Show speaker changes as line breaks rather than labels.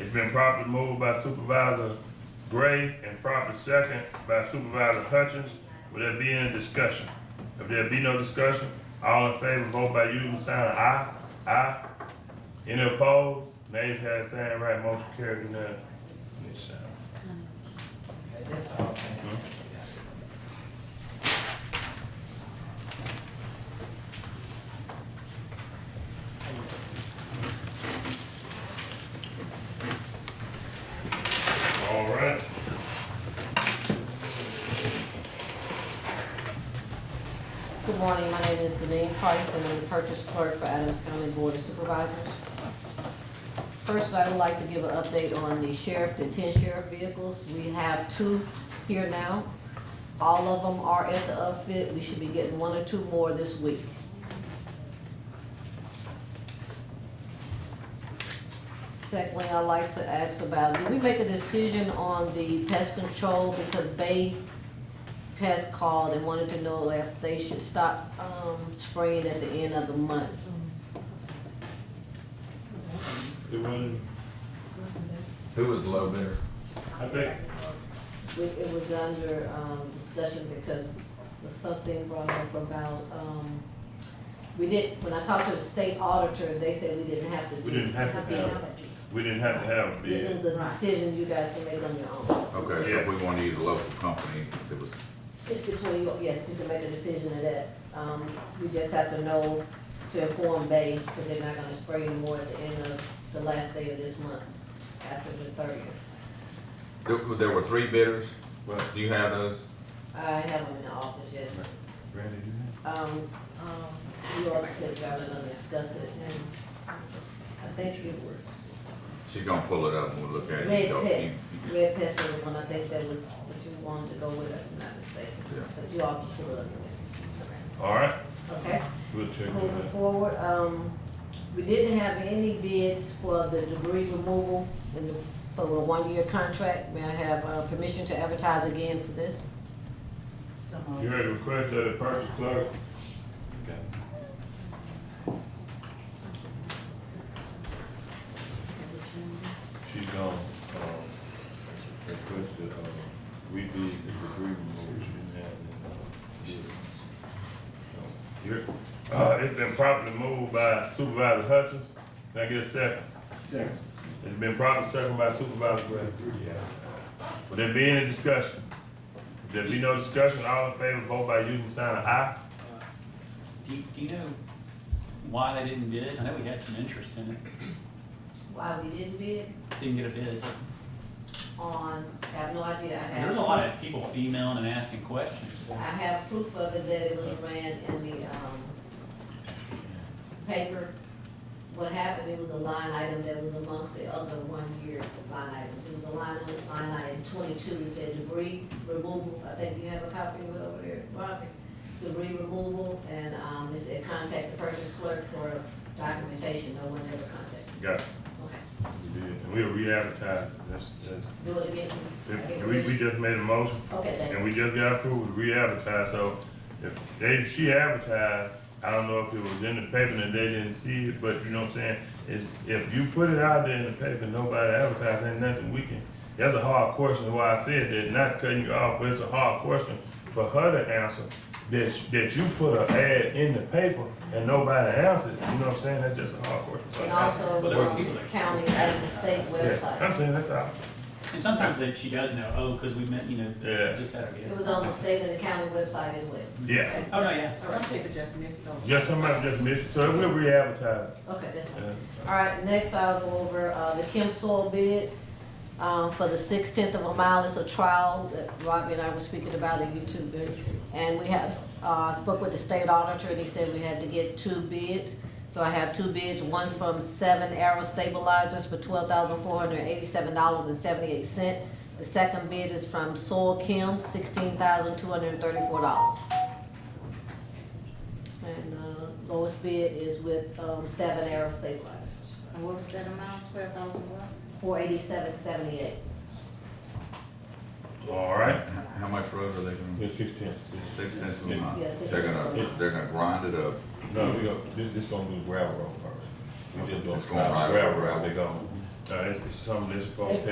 It's been properly moved by Supervisor Gray and properly second by Supervisor Hutchins. Will there be any discussion? If there be no discussion, all in favor, vote by using the sign of aye. Aye. Any opposed? Nays have sign right, motion carried unanimously.
That's all.
All right.
Good morning, my name is Deneen Price, and I'm the purchase clerk for Adams County Board of Supervisors. First, I would like to give an update on the sheriff, the ten sheriff vehicles. We have two here now. All of them are at the outfit. We should be getting one or two more this week. Secondly, I'd like to ask about, did we make a decision on the pest control because Bay has called and wanted to know if they should stop, um, spraying at the end of the month.
It was,
Who was low bidder?
I think,
We- It was under, um, discussion because was something brought up about, um, we did, when I talked to the state auditor, they said we didn't have to.
We didn't have to have it. we didn't have to have a
It
bid.
was a decision you guys can make on your own.
Okay, so if we want to use a local company that was,
It's between you, yes, you can make a decision of that. Um, we just have to know to inform Bay, because they're not gonna spray anymore at the end of the last day of this month, after the thirtieth.
there were- there were three bidders.
Well,
Do you have those?
I have them in the office, yes.
Randy, do you
Um, um, you all said y'all were gonna discuss it, and I think it was
She's gonna pull it up and we'll look at it. You
Red
don't-
Pest.
you-
Red Pest was the one, I think that was what you wanted to go with, if I'm not mistaken.
Yeah.
But you all can still look
have? All right,
at it. Okay?
we'll check
Moving
with that.
forward, um, we didn't have any bids for the debris removal in the, for the one-year contract. May I have, uh, permission to advertise again for this?
You heard the request of the purchase clerk. She's gone, um, requested, um, we be the debris removal, she didn't have it, uh, bid. So, you're- Uh, it's been properly moved by Supervisor Hutchins, can I get a second?
Second.
It's been properly seconded by Supervisor Gray. Yeah. Will there be any discussion? If there be no discussion, all in favor, vote by using the sign of aye.
Do you, do you know why they didn't bid? I know we had some interest in it,
Why we didn't bid
didn't get a bid.
on, I have no idea. I have
There's a lot of people emailing and asking questions.
I have proof of it that it was ran in the, um, paper. What happened, it was a line item that was amongst the other one-year line items. It was a line, line item twenty-two, it said debris removal, I think you have a copy of it over there, Bobby. Debris removal, and, um, it said contact the purchase clerk for documentation, no one ever contacted.
Got it.
Okay,
We did. And we'll re-advertise, that's, that's,
do it again. I get
if- we, we
permission.
just made a motion,
Okay, thank you.
and we just got approval to re-advertise, so if they, she advertised, I don't know if it was in the paper and they didn't see it, but you know what I'm saying? Is, if you put it out there in the paper, and nobody advertised, ain't nothing we can, that's a hard question, why I said that, not cutting you off, but it's a hard question for her to answer, that, sh- that you put an ad in the paper and nobody answered, you know what I'm saying? That's just a hard question. for her
And
to answer.
also,
Well, there were people
um,
that-
county and the state
Yeah,
website.
I'm saying that's all.
And sometimes that she does know, oh, because we met, you know,
Yeah.
just had a
It
bid.
was on the state and the county website as well.
Yeah,
Oh, no, yeah.
All
Some
right.
people just miss those.
just somebody just missed it, so we'll re-advertise.
Okay, that's fine.
Yeah.
All right, next I'll go over, uh, the Kim soil bids, um, for the six-tenth of a mile. It's a trial that Robbie and I were speaking about in YouTube. bid. And we have, uh, spoke with the state auditor and he said we had to get two bids. So I have two bids, one from Seven Arrow Stabilizers for twelve thousand four hundred eighty-seven dollars and seventy-eight cent. The second bid is from Soil Kim, sixteen thousand two hundred thirty-four dollars. And uh, lowest bid is with um, Seven Arrow Stabilizers,
And what was that amount, twelve thousand what?
four eighty-seven seventy-eight.
All right.
How much road are they gonna,
Yeah, six ten.
six cents a mile?
Yes, six
They're
cents.
gonna, they're gonna grind it up.
No, we go, this, this gonna do gravel road first. We just
It's gonna ride
gravel road, they gonna Uh, it's, it's something that's supposed to